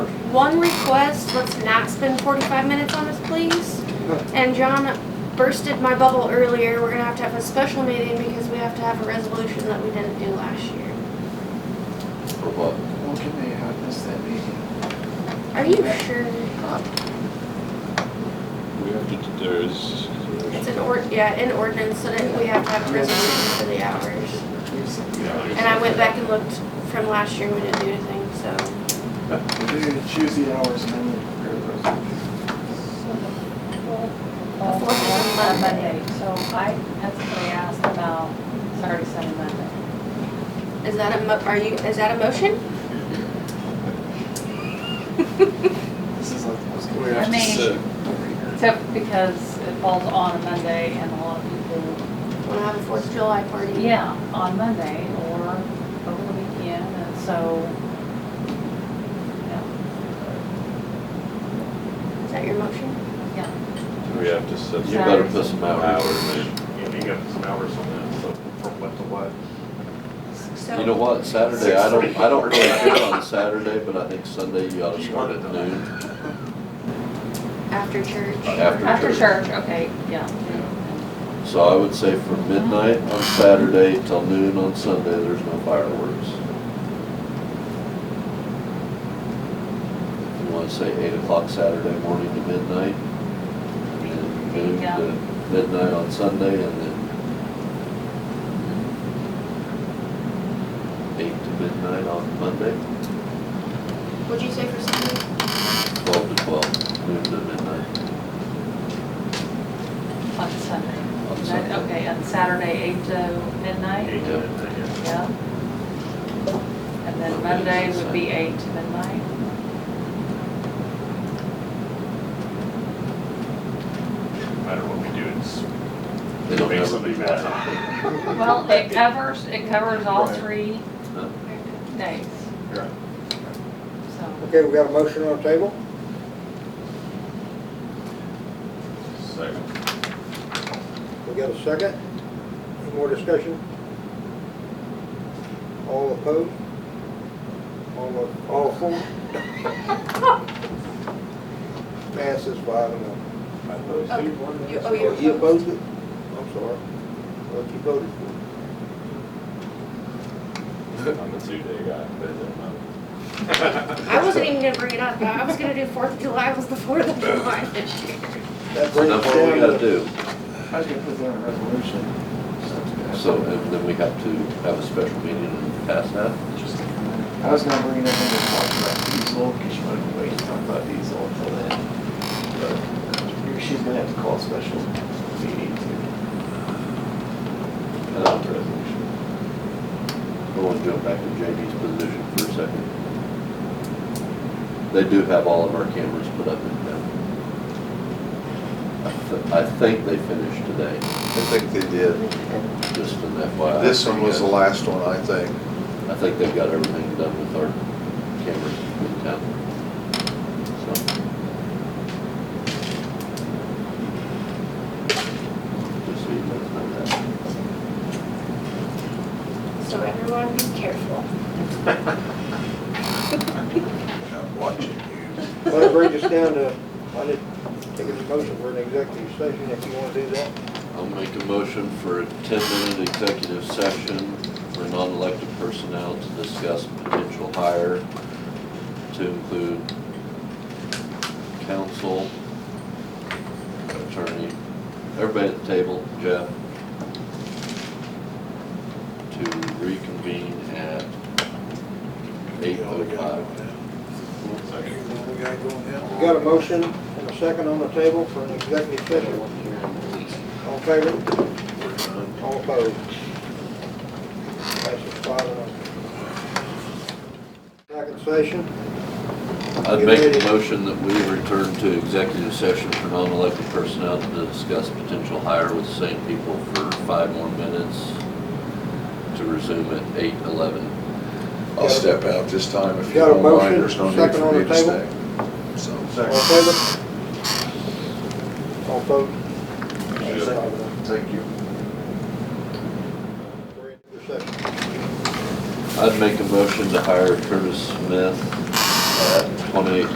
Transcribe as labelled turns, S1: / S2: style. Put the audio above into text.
S1: one request. Let's not spend 45 minutes on this, please. And John bursted my bubble earlier. We're gonna have to have a special meeting because we have to have a resolution that we didn't do last year.
S2: For what?
S3: Well, can they have this that meeting?
S1: Are you sure?
S4: We have to, there's,
S1: It's an ord, yeah, an ordinance, so that we have to have a resolution for the hours. And I went back and looked from last year, we didn't do anything, so.
S3: We do choose the hours and then we prepare those.
S5: Uh,
S1: The fourth is on Monday.
S5: Monday, so I had somebody ask about Saturday, Sunday, Monday.
S1: Is that a mo, are you, is that a motion?
S3: This is like the most.
S2: We have
S5: I
S2: to
S5: mean-
S2: sit.
S5: Except because it falls on a Monday and a lot of people,
S1: Wanna have a Fourth of July party?
S5: yeah, on Monday or over the weekend, and so. yeah,
S1: Is that your motion?
S5: Yeah,
S4: we have to set.
S2: You better
S5: Hours.
S2: put some hours in.
S6: hours, and you got some hours on that, so from what to what.
S1: So.
S2: You know what, Saturday, I don't, I don't really care on Saturday, but I think Sunday you ought to start at noon.
S1: After church.
S2: After
S5: after
S2: church.
S5: church, okay, yeah.
S2: So I would say from midnight on Saturday till noon on Sunday, there's no fireworks. If you wanna say eight o'clock Saturday morning to midnight, and noon
S5: Yeah.
S2: to midnight on Sunday, and then eight to midnight on Monday,
S1: What'd you say for Sunday?
S2: twelve to twelve, noon to midnight.
S5: On Sunday.
S2: On Sunday.
S5: Okay, and Saturday, eight to midnight,
S6: Eight to midnight, yeah.
S5: yeah. And then Monday would be eight to midnight.
S6: No matter what we do, it's
S2: They don't
S6: makes
S2: ever
S6: somebody
S2: do
S6: mad.
S5: Well, it covers, it covers all three
S2: Huh?
S5: days,
S6: Right.
S5: so.
S7: Okay, we got a motion on the table?
S4: Second.
S7: We got a second? Any more discussion? All opposed? All, o- all for? Passes five and oh.
S1: You, oh,
S7: Oh, you
S1: you're
S7: opposed it? I'm sorry. What you voted for?
S4: I'm a two-day guy, but it doesn't matter.
S6: uh,
S1: I wasn't even gonna bring it up. I was gonna do Fourth of July was the Fourth of July this year.
S2: So
S7: That brings
S2: that's what we
S7: down
S2: gotta
S7: to
S2: do.
S3: I was gonna put that in a resolution.
S2: So, uh, and then we have to have a special meeting and pass that?
S3: I was gonna bring it up and just talk about diesel, because she wanted to wait to talk about diesel until then. But uh, She's gonna have to call a special meeting to.
S2: Adopt the resolution. I want to jump back to JD's position for a second. They do have all of our cameras put up in town. I th- I think they finished today,
S8: I think they did.
S2: just an FYI.
S8: This one was the last one, I think.
S2: I think they've got everything done with our cameras in town. So. Just so you guys know that.
S1: So everyone be careful.
S8: I'm watching you.
S7: Well, that brings us down to, I didn't take a motion for an executive session if you want to do that.
S2: I'll make a motion for a ten-minute executive session for non-elected personnel to discuss potential hire to include counsel, attorney, everybody at the table, Jeff, to reconvene at eight oh five.
S8: Second. We got going down.
S7: We got a motion and a second on the table for an executive session. All in favor? All opposed? Passes five and oh. Second session.
S2: I'd make a motion that we return to executive session for non-elected personnel to discuss potential hire with the same people for five more minutes to resume at eight eleven.
S8: I'll step out this time if you
S7: Got a
S8: don't mind,
S7: motion,
S8: there's no need
S7: second on
S8: for me
S7: the
S8: to stay. So.
S7: All in favor? All opposed? Passes five and oh.
S8: Thank you.
S7: We're in your session.
S2: I'd make a motion to hire Curtis Smith at twenty-eight